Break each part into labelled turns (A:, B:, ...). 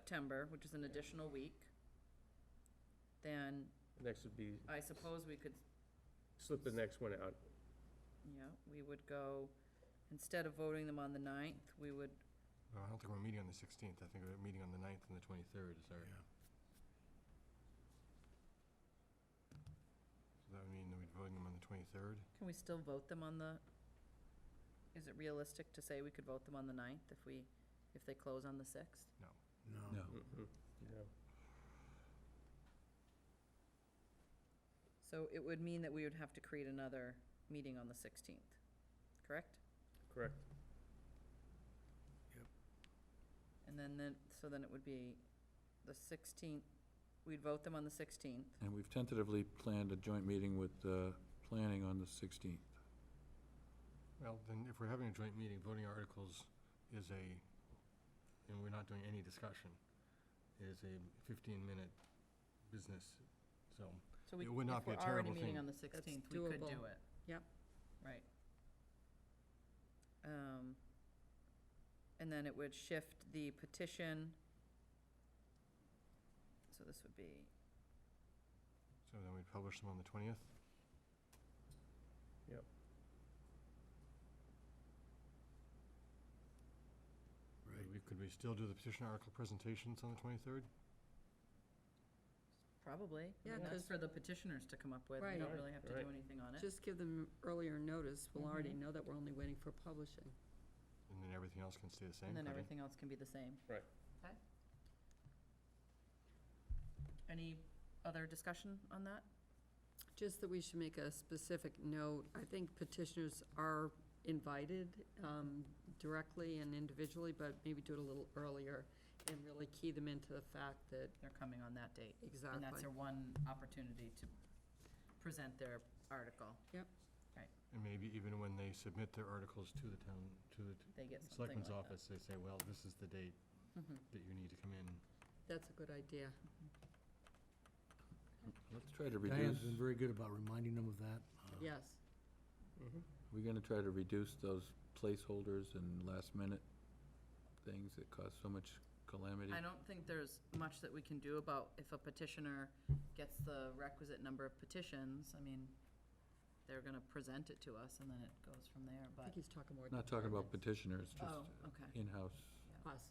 A: September, which is an additional week. Then
B: Next would be,
A: I suppose we could,
B: slip the next one out.
A: yeah, we would go, instead of voting them on the ninth, we would,
C: No, I don't think we're meeting on the 16th. I think we're meeting on the 9th and the 23rd is our. So that would mean that we'd voting them on the 23rd?
A: can we still vote them on the, is it realistic to say we could vote them on the ninth if we, if they close on the sixth?
D: No.
B: Mhm. No.
A: So it would mean that we would have to create another meeting on the sixteenth, correct?
B: Correct.
A: And then, then, so then it would be the sixteenth, we'd vote them on the sixteenth,
D: And we've tentatively planned a joint meeting with uh, planning on the 16th.
C: Well, then if we're having a joint meeting, voting articles is a, and we're not doing any discussion, is a 15-minute business, so.
A: so we, if
C: It
A: we're
C: would not be a
A: already
C: terrible
A: meeting
C: thing.
A: on the sixteenth, we could do it.
E: doable. Yep.
A: Right. Um, and then it would shift the petition. So this would be,
C: So then we'd publish them on the 20th? Could we- Could we still do the petition article presentations on the 23rd?
A: probably, I
E: Yeah,
A: mean, that's
E: 'cause-
A: for the petitioners to come up with, we
E: Right.
A: don't really have to do
B: Right.
A: anything on it.
E: Just give them earlier notice. We'll already
A: Mhm.
E: know that we're only waiting for publishing.
C: And then everything else can stay the same,
A: And then
C: could we?
A: everything else can be the same.
B: Right.
A: Okay. Any other discussion on that?
E: Just that we should make a specific note. I think petitioners are invited um, directly and individually, but maybe do it a little earlier and really key them into the fact that,
A: They're coming on that date. And that's
E: exactly.
A: their one opportunity to present their article.
C: And maybe even when they submit their articles to the town, to the t-
A: They get something
C: selectman's
A: like that.
C: office, they say, well, this is the date
A: Mhm.
C: that you need to come in.
E: That's a Mm-hmm. good idea.
D: Let's try to reduce,
F: very good about reminding them of that.
E: Yes.
B: Mhm.
D: we're gonna try to reduce those placeholders and last-minute things that cause so much calamity.
A: I don't think there's much that we can do about if a petitioner gets the requisite number of petitions. I mean, they're gonna present it to us and then it goes from there,
E: I
A: but,
E: think he's talking more.
D: Not talking about
E: departments.
D: petitioners, just
A: oh, okay.
D: in-house.
E: Us.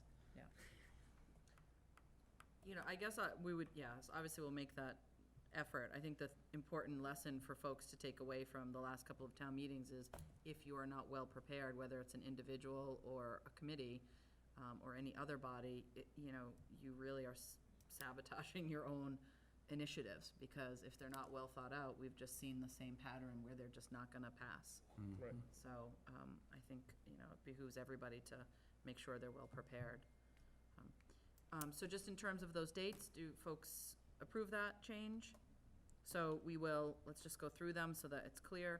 A: You know, I guess I, we would, yes, obviously we'll make that effort. I think the important lesson for folks to take away from the last couple of town meetings is if you are not well prepared, whether it's an individual or a committee, um, or any other body, it, you know, you really are s- sabotaging your own initiatives, because if they're not well thought out, we've just seen the same pattern where they're just not gonna pass.
B: Right.
D: Mhm.
A: So, um, I think, you know, it behooves everybody to make sure they're well prepared. Um, Um, so just in terms of those dates, do folks approve that change? So we will, let's just go through them so that it's clear.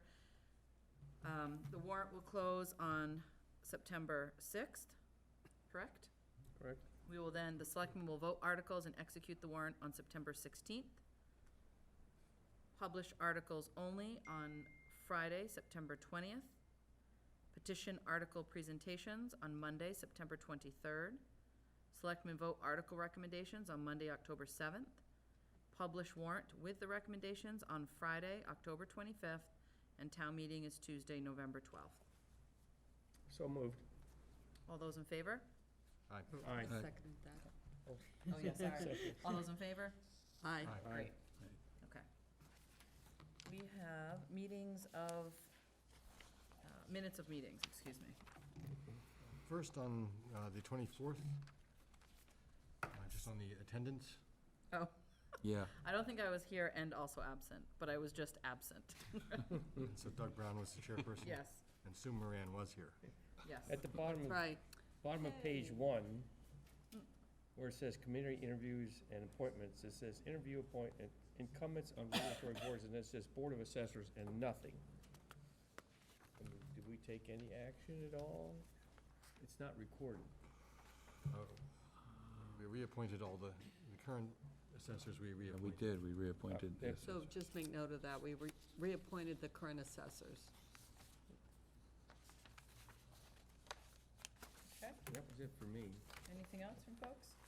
A: Um, the warrant will close on September sixth, correct?
B: Correct.
A: We will then, the selectmen will vote articles and execute the warrant on September sixteenth. Publish articles only on Friday, September twentieth. Petition article presentations on Monday, September twenty-third. Selectmen vote article recommendations on Monday, October seventh. Publish warrant with the recommendations on Friday, October twenty-fifth, and town meeting is Tuesday, November twelfth.
B: So moved.
A: All those in favor?
C: Aye.
B: Aye.
D: Aye.
E: Seconded that.
A: Oh, yeah, sorry. All those in favor?
E: Aye.
C: Aye.
A: Great.
D: Aye.
A: Okay. We have meetings of, uh, minutes of meetings, excuse me.
C: First, on uh, the 24th, uh, just on the attendance,
A: Oh,
D: Yeah,
A: I don't think I was here and also absent, but I was just absent.
F: Hmm.
C: and so Doug Brown was the chairperson.
A: Yes,
C: And Sue Moran was here.
A: yes.
B: At the bottom, of-
E: Right. Mm.
B: bottom of page
E: Hey.
B: one, where it says community interviews and appointments, it says interview appointment incumbents on regulatory boards, and it says Board of Assessors and nothing. I mean, Did we take any action at all? It's not recorded.
F: Oh.
C: Uh, We reappointed all the, the current assessors we
D: yeah, we
C: reappointed.
D: did, we reappointed
B: Yeah.
D: this.
E: So just make note of that. We re- reappointed the current assessors.
A: Okay,
B: That was it for me.
A: anything else from folks?